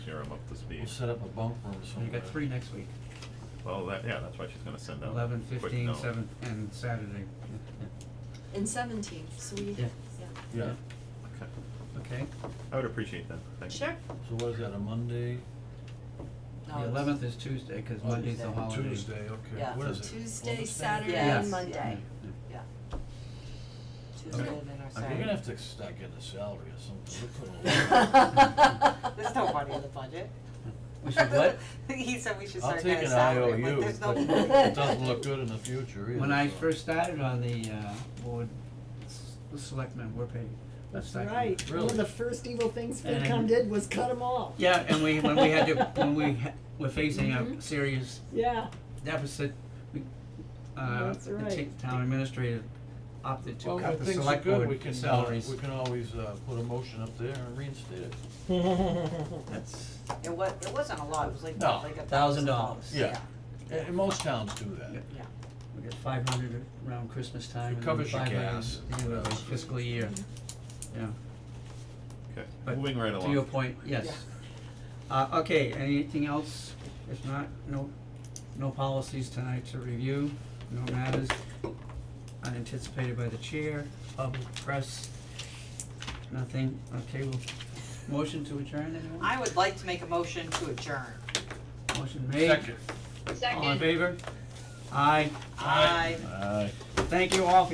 steer him up to We'll speed. set up a bunk room You somewhere. got three next week, Well, that, yeah, that's why she's gonna send out. eleven, quick fifteen, note. seven, and Saturday. And seventeen, so we, Yeah. yeah, Yeah, Okay, Okay, I would appreciate that, thank you. sure. so what is that, a Monday? No, the it's- eleventh is Tuesday, cause Monday's the Tuesday. holiday. Tuesday, okay, Yeah. what is it? Tuesday, Columbus Day? Saturday, Yeah. and Yes. Monday. Yeah. Okay. Tuesday, then our We're gonna Saturday. have to start getting a salary or something, we put a There's no money in the budget. We should what? He said we should I'll start take an getting a salary, IOU, but there's no. but money. it doesn't look good in the future either. When I so. first started on the, uh, board, s- the selectmen were paid, the That's selectmen. right. One Really? of the first evil things And- FinCom did was cut them off. Yeah, and we, when we had to, when we ha- were facing a serious Yeah, deficit, we, uh, That's the right. t- town administrator opted to Well, cut when the things are select good, we board can, uh, salaries. we can always, uh, put a motion up there and reinstate it. That's, It wa- it wasn't a lot, it was like, No. like a Thousand thousand dollars. dollars, Yeah. yeah. And, and most towns do that. Yeah. Yeah. we got five hundred around Christmas time It and then covers your five hundred gas at the end of the and- fiscal year, yeah. Okay, But moving right along. To your point, yes. Uh, okay, anything else? If not, no, no policies tonight to review, no matters unanticipated by the chair, public press, nothing, okay, well, motion to adjourn, anyone? I would like to make a motion to adjourn. Motion made. Second. All in favor? Aye, Aye. Aye. thank you all for